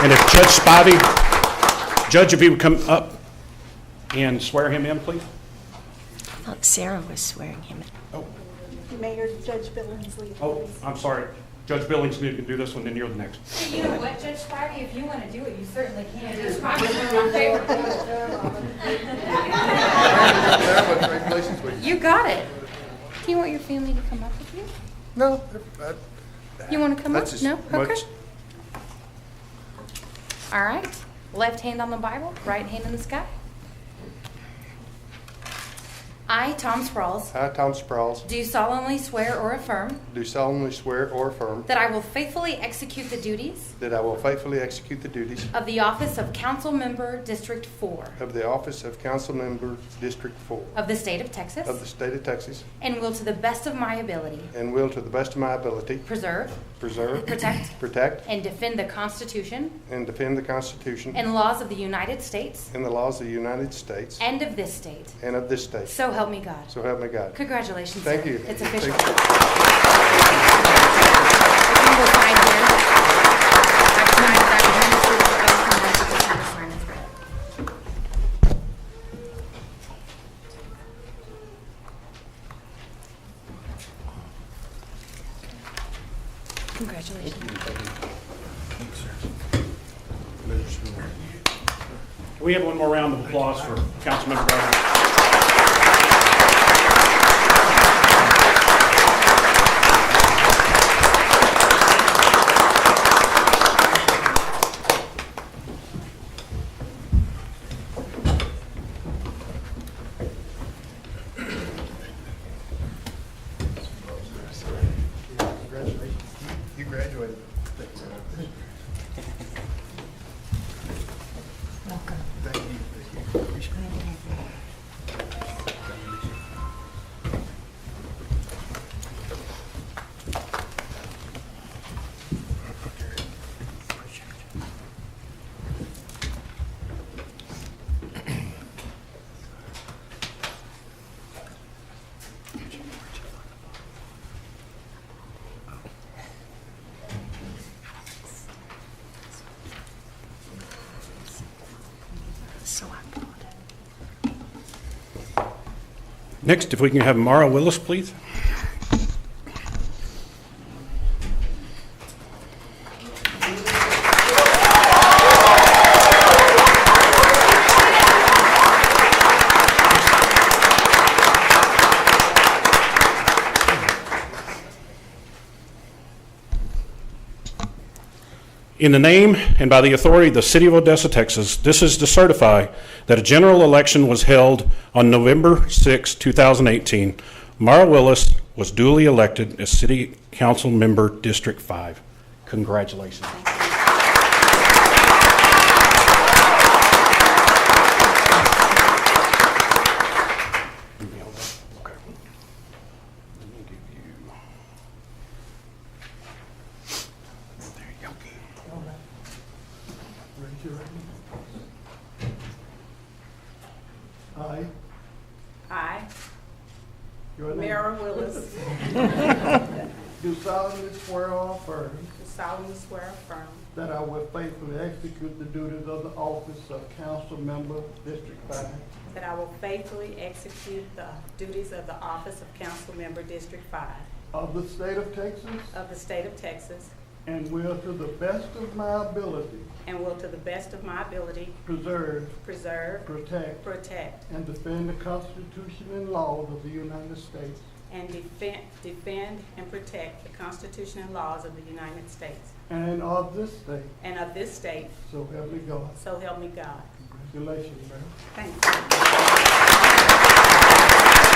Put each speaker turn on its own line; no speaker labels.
And if Judge Spivey, Judge, if you would come up and swear him in, please?
thought Sarah was swearing him in.
Oh,
Mayor Judge Billingsley.
oh, I'm sorry. Judge Billings, you can do this one, then you're the next.
You know what, Judge Spivey, if you want to do it, you certainly can. Judge Spivey's one of my favorites.
Congratulations, we-
You got it. Do you want your family to come up with you?
No, that-
You want to come up?
That's as
No? Okay.
much-
All right. Left hand on the Bible, right hand in the sky. I, Tom Sprouls,
I, Tom Sprouls,
do solemnly swear or affirm
do solemnly swear or affirm
that I will faithfully execute the duties
that I will faithfully execute the duties
of the office of Council Member District 4
of the office of council member, District Four,
of the state of
of the
Texas
state of Texas,
and will to the best of my ability
and will to the best of my ability
preserve,
preserve,
protect,
protect,
and defend the Constitution
and defend the Constitution
and laws of the United States
and the laws of the United States
and of this state.
and of this state.
So help me God.
So help me God.
Congratulations.
Thank
sir.
you.
It's official.
Thank you.
You will sign here. I've signed that one, so I'll come back and sign this one.
Congratulations.
Can we have one more round of applause for Councilmember Brown?
Congratulations. You graduated.
So I bought it.
Next, if we can have Mara Willis, please. In the name and by the authority of the City of Odessa, Texas, this is to certify that a general election was held on November 6, 2018. Mara Willis was duly elected as City Council Member District 5. Congratulations. Okay. Let me give you- there you go.
Raise your right hand.
I,
I, your name,
Mara Willis,
do solemnly swear or affirm
do solemnly swear affirm
that I will faithfully execute the duties of the office of council member, District Five,
that I will faithfully execute the duties of the office of council member District Five
of the state of Texas,
of the state of Texas
and will to the best of my ability
and will to the best of my ability
preserve,
preserve,
protect,
protect,
and defend the Constitution and laws of the United States
and defend, defend and protect the Constitution and laws of the United States
and of this state,
and of this state,
so help me God.
so help me God.
Congratulations, Mayor.
Thank you.